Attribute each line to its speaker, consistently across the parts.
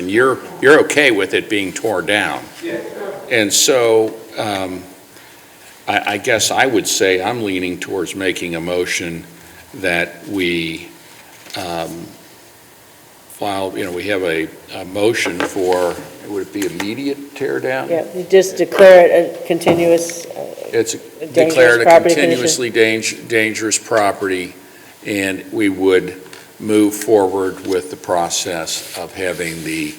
Speaker 1: And you're, you're okay with it being torn down? And so, um, I, I guess I would say I'm leaning towards making a motion that we, um, file, you know, we have a, a motion for, would it be immediate tear down?
Speaker 2: Yeah, you just declare it a continuous, uh,
Speaker 1: It's
Speaker 2: dangerous
Speaker 1: declared a
Speaker 2: property condition.
Speaker 1: continuously dang- dangerous property, and we would move forward with the process of having the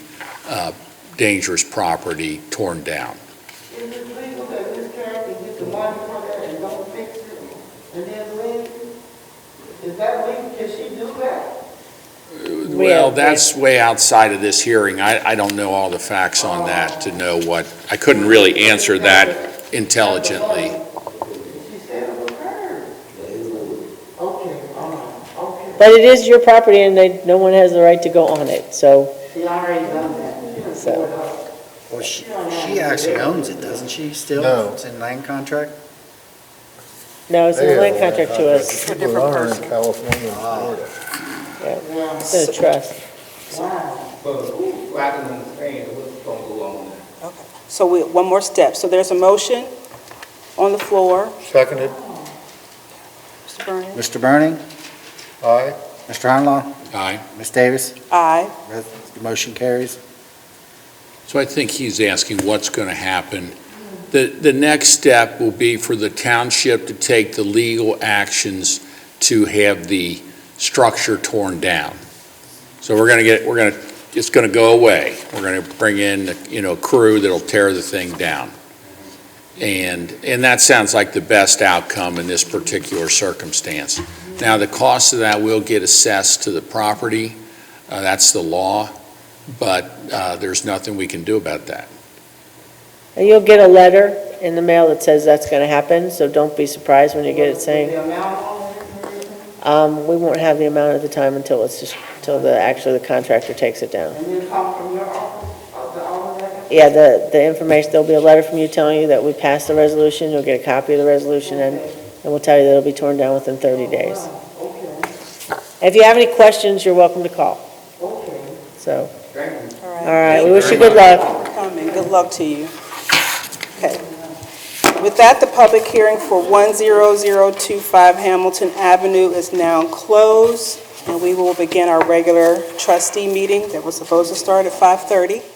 Speaker 1: uh, dangerous property torn down.
Speaker 3: Is it legal that this character get the money from her and don't fix it and then leave? Is that legal? Can she do that?
Speaker 1: Well, that's way outside of this hearing. I, I don't know all the facts on that to know what, I couldn't really answer that intelligently.
Speaker 3: She said it was hers. Okay, all right, okay.
Speaker 2: But it is your property and they, no one has the right to go on it, so,
Speaker 3: She already done that.
Speaker 2: so,
Speaker 4: Well, she, she actually owns it, doesn't she, still?
Speaker 5: No.
Speaker 4: It's in land contract?
Speaker 2: no, it's
Speaker 5: They
Speaker 2: a land
Speaker 5: have land
Speaker 2: contract to us,
Speaker 5: People that are in California and Florida.
Speaker 1: uh,
Speaker 2: it's a trust.
Speaker 3: Wow.
Speaker 6: Well, I can understand what's gonna go on there.
Speaker 7: So we, one more step. So there's a motion on the floor.
Speaker 5: Seconded,
Speaker 7: Mr. Burns?
Speaker 4: Mr. Burning,
Speaker 5: aye.
Speaker 4: Mr. Harnlaw,
Speaker 1: Aye.
Speaker 4: Ms. Davis,
Speaker 7: Aye.
Speaker 4: res- the motion carries.
Speaker 1: So I think he's asking what's going to happen. The, the next step will be for the township to take the legal actions to have the structure torn down. So we're going to get, we're going to, it's going to go away. We're going to bring in, you know, crew that'll tear the thing down. And, and that sounds like the best outcome in this particular circumstance. Now, the cost of that will get assessed to the property. Uh, That's the law but uh, there's nothing we can do about that.
Speaker 2: And you'll get a letter in the mail that says that's gonna happen, so don't be surprised when you get it saying,
Speaker 3: The amount on it and everything,
Speaker 2: um, we won't have the amount at the time until it's just, until the, actually the contractor takes it down.
Speaker 3: and then come from your office, of the owner that?
Speaker 2: Yeah, the, the information, there'll be a letter from you telling you that we passed the resolution, you'll get a copy of the resolution, and, and we'll tell you that it'll be torn down within 30 days.
Speaker 3: Okay,
Speaker 2: If you have any questions, you're welcome to call,
Speaker 3: okay.
Speaker 2: so,
Speaker 3: Thank you.
Speaker 2: all right, we wish you good luck.
Speaker 7: Coming. Good luck to you. Okay. With that, the public hearing for 10025 Hamilton Avenue is now closed, and we will begin our regular trustee meeting that was supposed to start at 5:30.